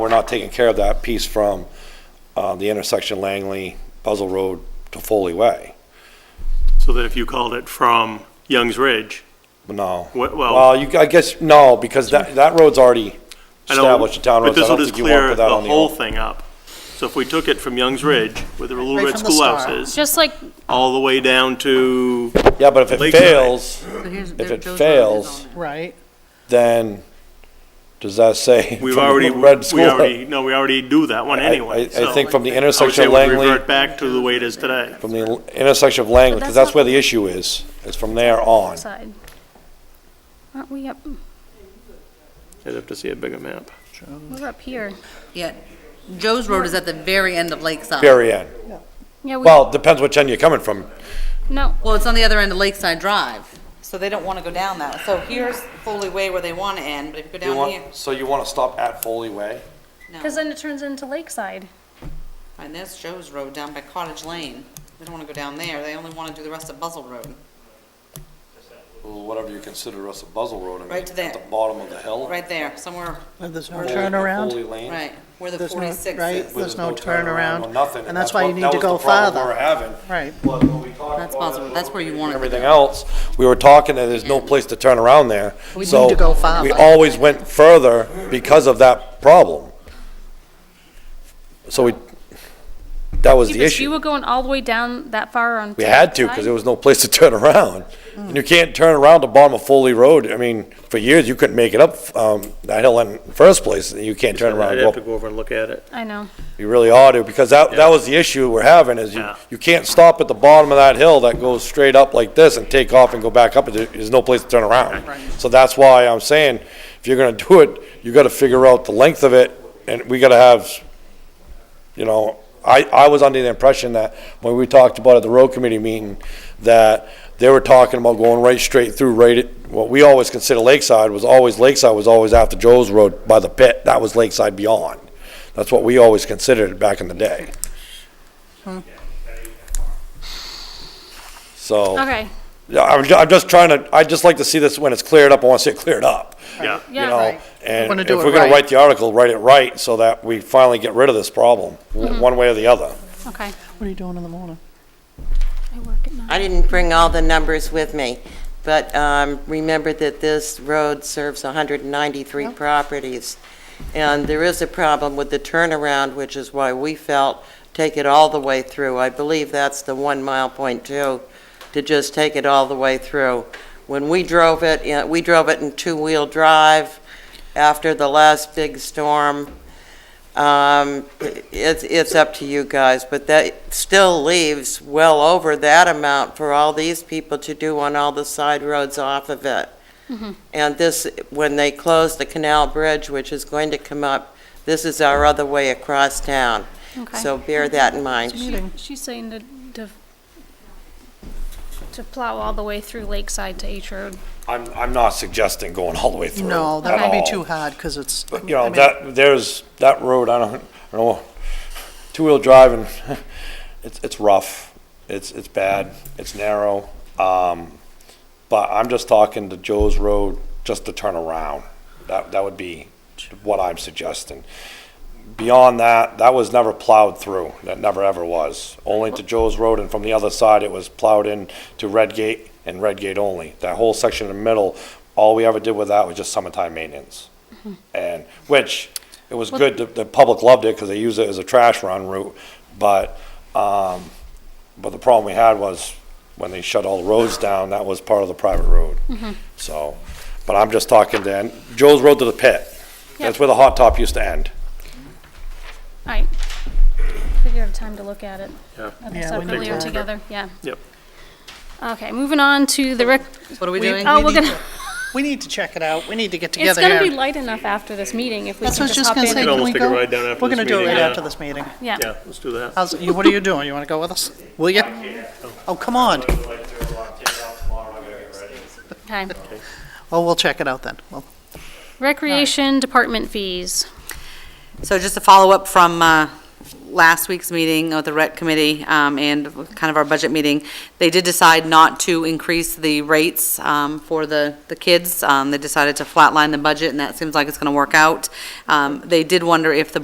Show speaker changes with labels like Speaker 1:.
Speaker 1: We're not taking care of that piece from uh, the intersection Langley, Buzzell Road to Foley Way.
Speaker 2: So that if you called it from Young's Ridge,
Speaker 1: No.
Speaker 2: Wh- well-
Speaker 1: Well, you, I guess, no, because that, that road's already
Speaker 2: I know-
Speaker 1: established, the town
Speaker 2: but
Speaker 1: roads. I
Speaker 2: this will
Speaker 1: don't
Speaker 2: just
Speaker 1: think you want to
Speaker 2: clear
Speaker 1: put that
Speaker 2: the
Speaker 1: on the.
Speaker 2: whole
Speaker 1: old-
Speaker 2: thing up. So if we took it from Young's Ridge, where the Little
Speaker 3: Right
Speaker 2: Red
Speaker 3: from the
Speaker 2: Schoolhouse
Speaker 3: start.
Speaker 2: is,
Speaker 4: Just like,
Speaker 2: all the way down to,
Speaker 1: Yeah, but if it
Speaker 2: Lakeside.
Speaker 1: fails,
Speaker 5: If
Speaker 1: it fails-
Speaker 3: Right,
Speaker 1: then does that say?
Speaker 2: we've
Speaker 1: from the
Speaker 2: already, we
Speaker 1: Red School?
Speaker 2: already, no, we already do that one
Speaker 1: I-
Speaker 2: anyway.
Speaker 1: I- I
Speaker 2: so
Speaker 1: think from the
Speaker 2: I would say
Speaker 1: intersection of
Speaker 2: we
Speaker 1: Langley,
Speaker 2: Revert back to the way it is today.
Speaker 1: from the intersection of Langley,
Speaker 4: But
Speaker 1: because
Speaker 4: that's
Speaker 1: that's where the issue is, is from there on.
Speaker 4: side. Aren't we up,
Speaker 2: I'd have to see a bigger map.
Speaker 4: we're up here.
Speaker 5: Yeah, Joe's Road is at the very end of Lakeside.
Speaker 1: Very end.
Speaker 4: Yeah, we,
Speaker 1: Well, depends which end you're coming from.
Speaker 4: no,
Speaker 5: Well, it's on the other end of Lakeside Drive, so they don't want to go down that. So here's Foley Way where they want to end, but if you go down here,
Speaker 1: so you want to stop at Foley Way?
Speaker 4: because
Speaker 5: no.
Speaker 4: then it turns into Lakeside.
Speaker 5: And there's Joe's Road down by Cottage Lane. They don't want to go down there. They only want to do the rest of Buzzell Road.
Speaker 1: Whatever you consider us a Buzzell Road, I mean,
Speaker 5: Right
Speaker 1: at
Speaker 5: to there.
Speaker 1: the bottom of the hill.
Speaker 5: Right there, somewhere,
Speaker 3: But there's no
Speaker 5: Or-
Speaker 3: turnaround.
Speaker 1: Foley Lane.
Speaker 5: right, where the
Speaker 3: There's no,
Speaker 5: forty-six
Speaker 3: right,
Speaker 5: is.
Speaker 1: where
Speaker 3: there's no turnaround.
Speaker 1: or nothing,
Speaker 3: And that's why you
Speaker 1: what-
Speaker 3: need to
Speaker 1: that
Speaker 3: go
Speaker 1: was the problem
Speaker 3: farther. Right.
Speaker 1: we were having. But when we talked
Speaker 5: That's
Speaker 1: about it,
Speaker 5: possible. That's where you want it to
Speaker 1: Everything else, we were talking that there's no place to turn around there.
Speaker 3: We
Speaker 1: So
Speaker 3: need to go farther.
Speaker 1: We always went further because of that problem. So we, that was the
Speaker 4: Because you
Speaker 1: issue.
Speaker 4: were going all the way down that far on.
Speaker 1: We had to, because there was no place to turn around. And you can't turn around the bottom of Foley Road. I mean, for years, you couldn't make it up, um, that hill in the first place. You can't turn around.
Speaker 2: I'd
Speaker 1: and go
Speaker 2: have
Speaker 1: up
Speaker 2: to go over and look at it.
Speaker 4: I know.
Speaker 1: You really ought to, because that, that was the issue we're having, is you,
Speaker 2: Yeah.
Speaker 1: you can't stop at the bottom of that hill that goes straight up like this and take off and go back up, There- there's no place to turn around. So that's why I'm saying, if you're gonna do it, you gotta figure out the length of it, and we gotta have, you know, I, I was under the impression that, when we talked about at the road committee meeting, that they were talking about going right straight through, right at, what we always consider Lakeside was always, Lakeside was always after Joe's Road by the pit, that was Lakeside Beyond. That's what we always considered it back in the day. So,
Speaker 4: Okay,
Speaker 1: yeah, I'm, ju- I'm just trying to, I'd just like to see this when it's cleared up, I want to see it cleared up,
Speaker 2: Yeah.
Speaker 1: you
Speaker 4: yeah.
Speaker 1: know?
Speaker 3: Right.
Speaker 1: And
Speaker 3: Wanna
Speaker 1: if
Speaker 3: do it
Speaker 1: we're gonna
Speaker 3: right.
Speaker 1: write the article, write it right so that we finally get rid of this problem, w- one way or the other.
Speaker 4: Okay.
Speaker 3: What are you doing in the morning?
Speaker 4: I work at night.
Speaker 6: I didn't bring all the numbers with me, but um, remember that this road serves 193 properties. And there is a problem with the turnaround, which is why we felt, take it all the way through. I believe that's the one mile point two, to just take it all the way through. When we drove it, you know, we drove it in two-wheel drive after the last big storm. Um, It's, it's up to you guys, but that still leaves well over that amount for all these people to do on all the side roads off of it. And this, when they close the canal bridge, which is going to come up, this is our other way across town.
Speaker 4: Okay.
Speaker 6: So bear that in
Speaker 4: So
Speaker 6: mind.
Speaker 4: she- She's saying to, to, to plow all the way through Lakeside to H Road.
Speaker 1: I'm, I'm not suggesting going all the way through
Speaker 3: No,
Speaker 1: at
Speaker 3: that would
Speaker 1: all.
Speaker 3: be too hard, because it's.
Speaker 1: But, you
Speaker 3: I
Speaker 1: know,
Speaker 3: mean,
Speaker 1: that, there's, that road, I don't, I don't know, two-wheel driving, it's, it's rough, it's, it's bad, it's narrow. Um, but I'm just talking to Joe's Road, just to turn around. That, that would be what I'm suggesting. Beyond that, that was never plowed through, that never ever was. Only to Joe's Road, and from the other side, it was plowed in to Red Gate and Red Gate only. That whole section in the middle, all we ever did with that was just summertime maintenance. And, which, it was good, the, the public loved it, because they use it as a trash run route, but, um, but the problem we had was, when they shut all the roads down, that was part of the private road. So, but I'm just talking then, Joe's Road to the pit, that's where the hot top used to end.
Speaker 4: All right. Figure out a time to look at it.
Speaker 2: Yeah.
Speaker 4: Like I
Speaker 3: Yeah, we
Speaker 4: said
Speaker 3: need
Speaker 4: earlier
Speaker 3: to-
Speaker 4: together, yeah.
Speaker 2: Yep.
Speaker 4: Okay, moving on to the rec,
Speaker 5: What are we doing?
Speaker 4: oh,
Speaker 3: we
Speaker 4: we're
Speaker 3: need
Speaker 4: gonna,
Speaker 3: We need to check it out, we need to get
Speaker 4: it's
Speaker 3: together
Speaker 4: gonna be
Speaker 3: here.
Speaker 4: light enough after this meeting if we
Speaker 3: That's
Speaker 4: can
Speaker 3: what I was
Speaker 4: just
Speaker 3: just
Speaker 4: hop
Speaker 3: gonna say,
Speaker 4: in.
Speaker 2: could
Speaker 3: can we
Speaker 2: almost
Speaker 3: go?
Speaker 2: take a ride down after
Speaker 3: We're
Speaker 2: this
Speaker 3: gonna do it
Speaker 2: meeting,
Speaker 3: right
Speaker 2: yeah.
Speaker 3: after this meeting.
Speaker 4: Yeah,
Speaker 2: Yeah, let's do that.
Speaker 3: How's, you, what are you doing, you wanna go with us? Will you? Oh, come on,
Speaker 4: okay.
Speaker 3: Oh, well, we'll check it out then, well,
Speaker 4: Recreation department fees.
Speaker 5: So just a follow-up from uh, last week's meeting of the rec committee um, and kind of our budget meeting, they did decide not to increase the rates um, for the, the kids. Um, They decided to flatline the budget, and that seems like it's going to work out. Um, They did wonder if the